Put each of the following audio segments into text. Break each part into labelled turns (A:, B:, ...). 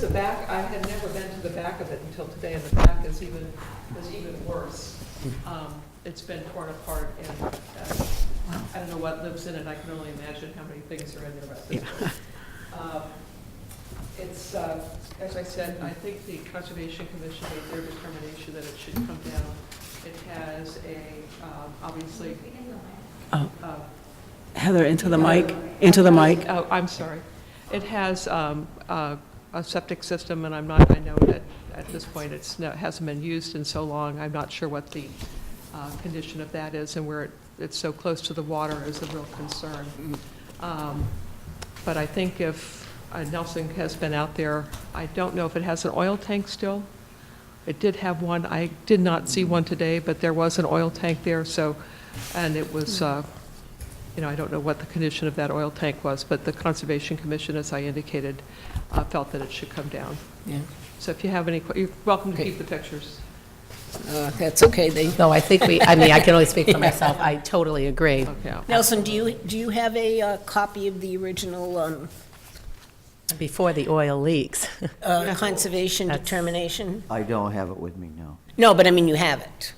A: the back, I had never been to the back of it until today, and the back is even, is even worse. Um, It's been torn apart, and uh, I don't know what lives in it, I can only imagine how many things are in there about this. Um, It's, uh, as I said, I think the Conservation Commission made their determination that it should come down. It has a, um, obviously,
B: Oh,
A: uh,
B: Heather, into the mic, into the mic.
A: Oh, I'm sorry. It has um, uh, a septic system, and I'm not, I know that at this point, it's, no- it hasn't been used in so long. I'm not sure what the uh, condition of that is, and where it- it's so close to the water is a real concern. Um, But I think if, uh, Nelson has been out there, I don't know if it has an oil tank still. It did have one, I did not see one today, but there was an oil tank there, so, and it was, uh, you know, I don't know what the condition of that oil tank was, but the Conservation Commission, as I indicated, uh, felt that it should come down.
C: Yeah.
A: So if you have any, que- you're welcome to
C: Okay.
A: keep the pictures.
C: Uh, That's okay, they, no, I think we, I mean, I can only speak for myself, I totally agree.
A: Okay.
D: Nelson, do you, do you have a uh, copy of the original um,
C: Before the oil leaks.
D: uh, conservation
C: That's-
D: determination?
E: I don't have it with me, no.
D: No, but I mean, you have it.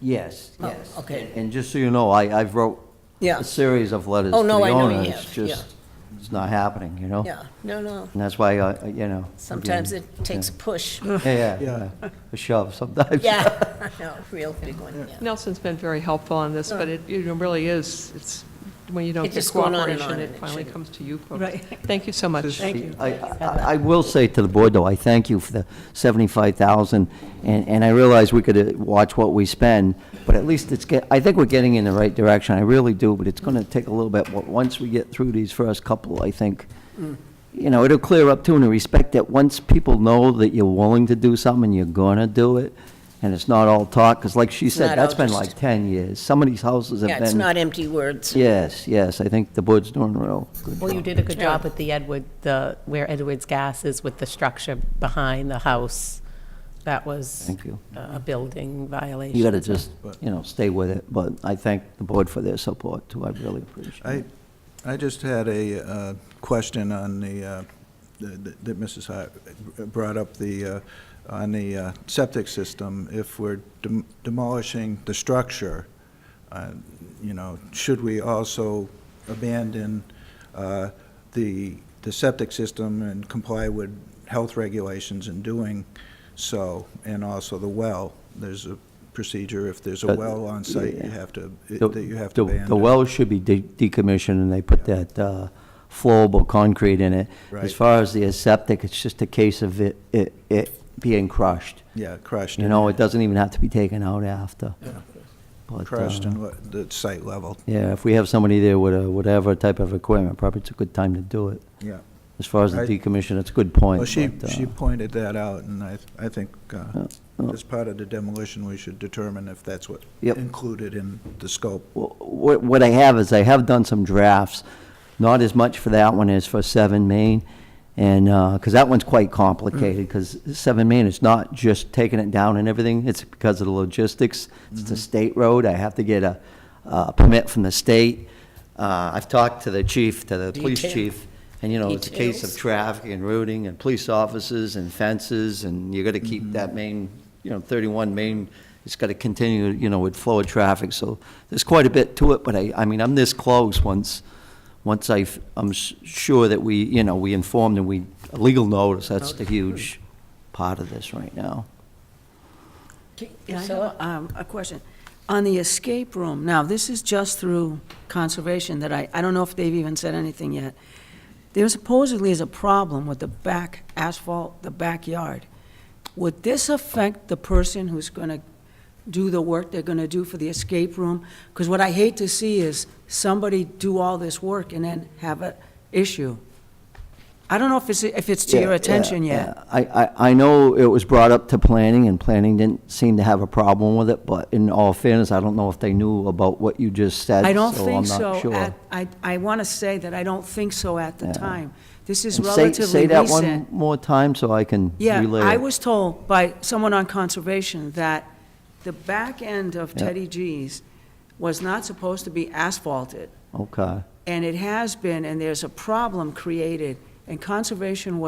E: Yes,
D: Oh,
E: yes.
D: okay.
E: And just so you know, I, I've wrote
D: Yeah,
E: a series of letters
D: Oh,
E: to the
D: no, I know
E: owner.
D: you
E: It's
D: have, yeah.
E: just, it's not happening, you know?
D: yeah, no, no.
E: And that's why, I- you know.
D: Sometimes
E: again,
D: it takes a push.
E: Yeah, yeah, yeah. a shove sometimes.
D: Yeah, no, real big one, yeah.
A: Nelson's been very helpful on this, but it, you know, really is, it's, when you don't
D: It's
A: get
D: just going on and
A: cooperation,
D: on,
A: it
D: and it
A: finally
D: shouldn't.
A: comes to you folks. Thank you so much.
E: I, I- I will say to the board, though, I thank you for the 75,000, and, and I realize we could uh, watch what we spend, but at least it's, get. I think we're getting in the right direction, I really do, but it's going to take a little bit, Wa- once we get through these first couple, I think,
D: Mm.
E: you know, it'll clear up too, in the respect that once people know that you're willing to do something, you're going to do it, and it's not all talk, because like she
D: not
E: said,
D: all
E: that's been
D: just-
E: like 10 years, some of these houses have been.
D: Yeah, it's not empty words.
E: Yes, yes, I think the board's doing real good.
C: Well, you did a good job with the Edward, the, where Edward's gas is with the structure behind the house. That was
E: Thank you.
C: a a building violation.
E: You gotta just, you know, stay with it, but I thank the board for their support, too, I really appreciate
F: I,
E: it.
F: I just had a uh, question on the, uh, that that Mrs. Hart brought up, the, uh, on the uh, septic system. If we're dem- demolishing the structure, uh, you know, should we also abandon uh, the, the septic system and comply with health regulations in doing so, and also the well? There's a procedure, if there's a
E: Uh,
F: well on site,
E: yeah.
F: you have to,
E: The-
F: that you have
E: the-
F: to abandon.
E: The well should be de- decommissioned, and they put that uh, flowable concrete in it.
F: Right.
E: As far as the septic, it's just a case of it, it, it being crushed.
F: Yeah, crushed.
E: You
F: in
E: know,
F: there.
E: it doesn't even have to be taken out after. But, uh,
F: crushed and what, the site level.
E: Yeah, if we have somebody there with a, whatever type of equipment, probably it's a good time to do it.
F: Yeah.
E: As far as the
F: I-
E: decommission, it's a good point.
F: Well, she,
E: but, uh,
F: she pointed that out, and I, I think, uh,
E: yeah.
F: as part of the demolition, we should determine if that's what
E: Yep.
F: included in the scope.
E: what, what I have is I have done some drafts, not as much for that one as for Seven Main, and, because that one's quite complicated, because Seven Main is not just taking it down and everything, it's because of the logistics. It's a state road, I have to get a, a permit from the state. Uh, I've talked to the chief, to the police
D: Detail.
E: chief, and you know, it's a case of
D: Details.
E: traffic and routing and police officers and fences, and you gotta keep that main, you know, thirty-one main, it's gotta continue, you know, with flow of traffic, so there's quite a bit to it, but I, I mean, I'm this close once, once I, I'm s- sure that we, you know, we informed and we, a legal notice, that's the huge part of this right now.
B: Yeah, I have
D: Priscilla?
B: a- um, a question. On the escape room, now, this is just through conservation that I, I don't know if they've even said anything yet. There supposedly is a problem with the back asphalt, the backyard. Would this affect the person who's going to do the work they're going to do for the escape room? Because what I hate to see is somebody do all this work and then have an issue. I don't know if it's, if it's to
E: Yeah,
B: your
E: yeah,
B: attention yet.
E: yeah. I, I, I know it was brought up to planning, and planning didn't seem to have a problem with it, but in all fairness, I don't know if they knew about what you just said,
B: I don't
E: so
B: think
E: I'm not
B: so.
E: sure.
B: at- I, I want to say that I don't think so at the time. This is
E: And say- Say
B: relatively
E: that one
B: recent.
E: more time so I can
B: Yeah,
E: relay
B: I
E: it.
B: was told by someone on conservation that the back end of
E: Yeah.
B: Teddy G's was not supposed to be asphalted,
E: Okay.
B: and it has been, and there's a problem created, and conservation was